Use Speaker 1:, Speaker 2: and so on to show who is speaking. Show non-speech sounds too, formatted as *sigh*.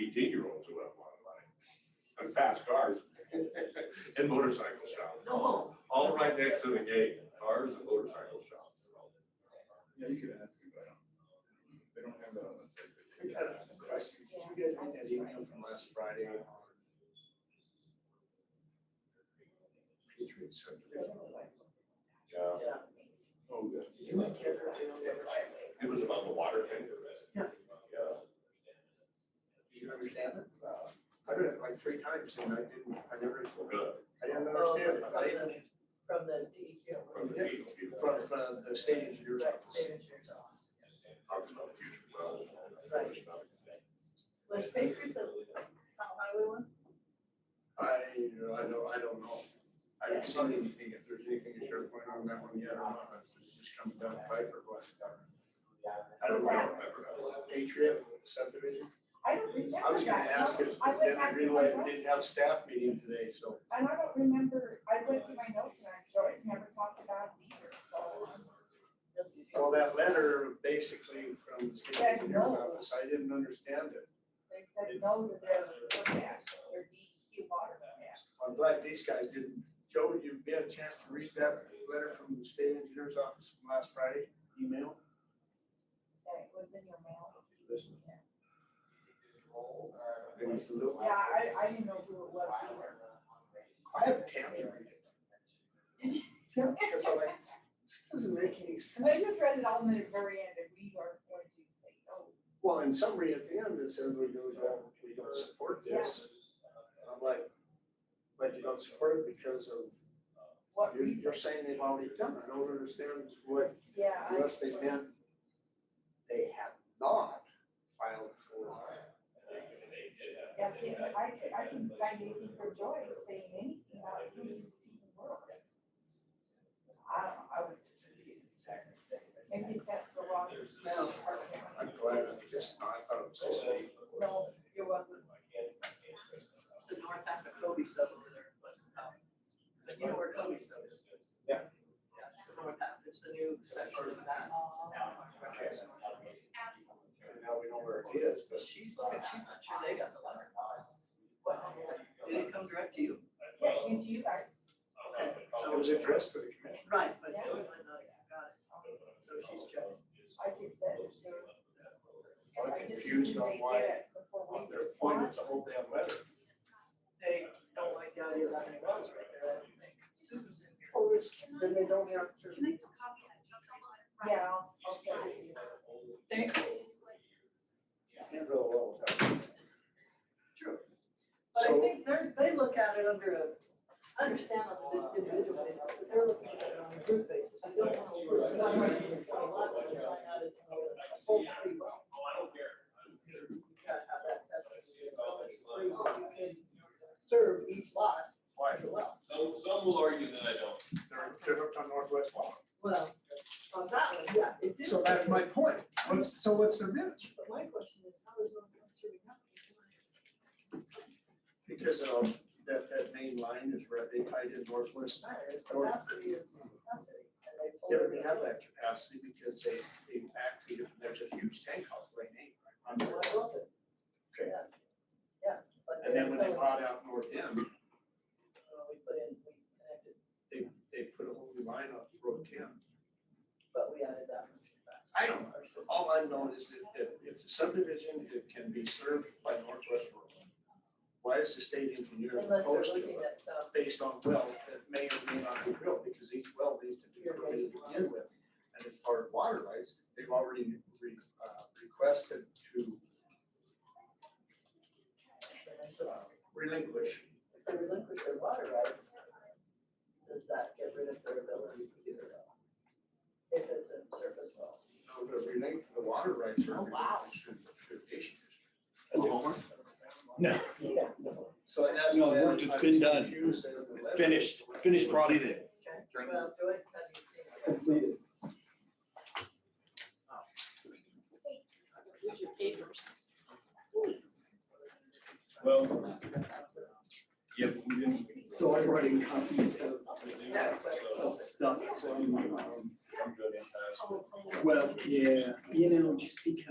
Speaker 1: eighteen-year-olds who have a lot of money. And fast cars *laughs* and motorcycle shops. All all right next to the gate, cars and motorcycle shops.
Speaker 2: Yeah, you could ask him, but I don't, they don't have that on the site. but
Speaker 3: I got
Speaker 2: you can ask
Speaker 3: a
Speaker 2: him.
Speaker 3: question. Did you guys read that email from last Friday? Patriot subdivision.
Speaker 1: Yeah,
Speaker 2: Oh, yeah.
Speaker 1: it was about the water tanker.
Speaker 3: Yeah.
Speaker 1: Yeah.
Speaker 3: Do you understand it? Uh, I read it like three times and I didn't, I never,
Speaker 1: Well, good.
Speaker 3: I didn't understand it. I didn't-
Speaker 4: From the E DEQ.
Speaker 1: From the people who
Speaker 3: From uh, the state engineer's
Speaker 4: Right,
Speaker 3: office.
Speaker 4: state engineer's office.
Speaker 1: talked about future wells and all that other stuff.
Speaker 4: Was Patriot the top highway one?
Speaker 3: I, I don't, I don't know. I haven't seen anything, if there's anything to share point on that one yet, I don't know if it's just coming down the pipe or what. I don't
Speaker 1: I
Speaker 3: know.
Speaker 1: don't remember that.
Speaker 3: Patriot subdivision.
Speaker 5: I don't remember
Speaker 3: I was gonna
Speaker 5: that.
Speaker 3: ask
Speaker 5: No,
Speaker 3: it, but
Speaker 5: I went
Speaker 3: then I
Speaker 5: back to my
Speaker 3: realized we
Speaker 5: notes,
Speaker 3: didn't have staff meeting today, so.
Speaker 5: And I don't remember, I went through my notes and I- Joyce never talked about it either, so.
Speaker 3: Well, Oh, that letter basically from the state
Speaker 5: Said
Speaker 3: engineer's
Speaker 5: no.
Speaker 3: office, I didn't understand it.
Speaker 5: They said no to their
Speaker 4: E
Speaker 5: permit, their DEQ water permit.
Speaker 3: I'm glad these guys didn't. Joe, you get a chance to read that letter from the state engineer's office from last Friday, email?
Speaker 5: That it was in your mail.
Speaker 3: It was a little-
Speaker 5: Yeah, I, I didn't know who it was either.
Speaker 3: I have Tammy read it.
Speaker 5: *laughs*
Speaker 3: Because I'm like, this doesn't make any
Speaker 5: And I
Speaker 3: sense.
Speaker 5: just read it all in the very end and we are going to say, no.
Speaker 3: Well, in summary, at the end, it says we don't, we don't support this. And I'm like, but you don't support it because of,
Speaker 5: what
Speaker 3: you're, you're
Speaker 5: reason?
Speaker 3: saying they've already done it. I don't understand what,
Speaker 5: Yeah. I-
Speaker 3: unless they meant they have not filed for
Speaker 5: Yeah, see, I could, I can find anything for Joy saying anything about who these people were. I, don't know, I was confused. Maybe it's at the wrong.
Speaker 3: I'm glad, I just, I thought it was just a.
Speaker 5: No, it wasn't.
Speaker 4: It's the north half of Kobe sub over there, West Powell. But you know where Kobe sub is?
Speaker 3: Yeah.
Speaker 4: Yeah, it's the north half, it's the new section of that.
Speaker 3: And now we know where it is,
Speaker 4: But
Speaker 3: but
Speaker 4: she's looking, she's not sure they got the letter. Did it come direct to you?
Speaker 5: Yeah, you, you guys.
Speaker 3: so it was addressed to the commission.
Speaker 4: Right, but
Speaker 5: Yeah.
Speaker 4: Joey might not have got it, so she's checking.
Speaker 5: I could send it to her. And I
Speaker 3: I'm
Speaker 5: just
Speaker 3: confused
Speaker 5: assumed
Speaker 3: on
Speaker 5: they did
Speaker 3: why,
Speaker 5: it Before
Speaker 3: on
Speaker 5: we
Speaker 3: their point,
Speaker 5: responded.
Speaker 3: it's a whole damn letter.
Speaker 4: They don't like the idea of having wells right there, I don't think. Susan's in here.
Speaker 3: Oh, it's, then they don't have
Speaker 6: Can I
Speaker 3: to.
Speaker 6: get a copy of that?
Speaker 5: Yeah, I'll, I'll send it to you.
Speaker 4: Thank you.
Speaker 3: Can't go well without it.
Speaker 4: True. But I
Speaker 3: So-
Speaker 4: think they're, they look at it under a, I understand on an individual basis, but they're looking at it on a group basis. I don't know. where it's not like you can find lots of them, find out it's a whole tree well.
Speaker 7: Oh,
Speaker 4: You gotta have that tested, to see how much tree well you can serve each lot
Speaker 3: Why?
Speaker 4: as well.
Speaker 7: Some, some will argue that I don't.
Speaker 3: They're, they're hooked on Northwest Water.
Speaker 4: Well, on that one, yeah, it did.
Speaker 3: So that's my point. What's, so what's the minutes?
Speaker 4: But my question is, how does one come serving up?
Speaker 3: Because of that, that main line is where they tied in Northwest.
Speaker 4: Alright, capacity is capacity. and they
Speaker 3: Yeah,
Speaker 4: told
Speaker 3: we
Speaker 4: me-
Speaker 3: have that capacity because they, they backfeed it, and there's a huge tank house right now.
Speaker 4: Well, I love it.
Speaker 3: Okay.
Speaker 4: Yeah. Yeah. but
Speaker 3: And then when they
Speaker 4: they're
Speaker 3: bought out North End,
Speaker 4: telling, uh, We put in, we connected,
Speaker 3: they, they put a whole new line up Road Ten.
Speaker 4: but we added that. much capacity.
Speaker 3: I don't know, all I know is that, that if the subdivision, it can be served by Northwest Road. Why is the state engineer
Speaker 4: Unless
Speaker 3: opposed
Speaker 4: they're
Speaker 3: to
Speaker 4: looking
Speaker 3: it
Speaker 4: at, uh,
Speaker 3: based on well that may or may not be drilled, because each well needs to be permitted to begin with. And as far as water rights, they've already re, uh, requested to uh, relinquish.
Speaker 4: if they relinquish their water rights, does that get rid of their ability to do it all? If it's a surface well.
Speaker 3: No, the relink, uh, the water rights are.
Speaker 4: Oh, wow.
Speaker 3: Should, should issue.
Speaker 8: Oklahoma? No,
Speaker 4: Yeah.
Speaker 3: So and that's.
Speaker 8: No,
Speaker 3: why I'm-
Speaker 8: work, it's
Speaker 3: I'm
Speaker 8: been done.
Speaker 3: confused as the letter-
Speaker 8: finished, finished brought it in.
Speaker 4: Okay,
Speaker 8: Turn it
Speaker 4: well, Joy, how do you see it?
Speaker 6: Use your papers.
Speaker 7: Well, yeah, but we didn't.
Speaker 9: So I'm writing copies of
Speaker 4: That's what it was.
Speaker 9: stuff, so, um,
Speaker 7: Come to an impasse.
Speaker 9: well, yeah, you know, just be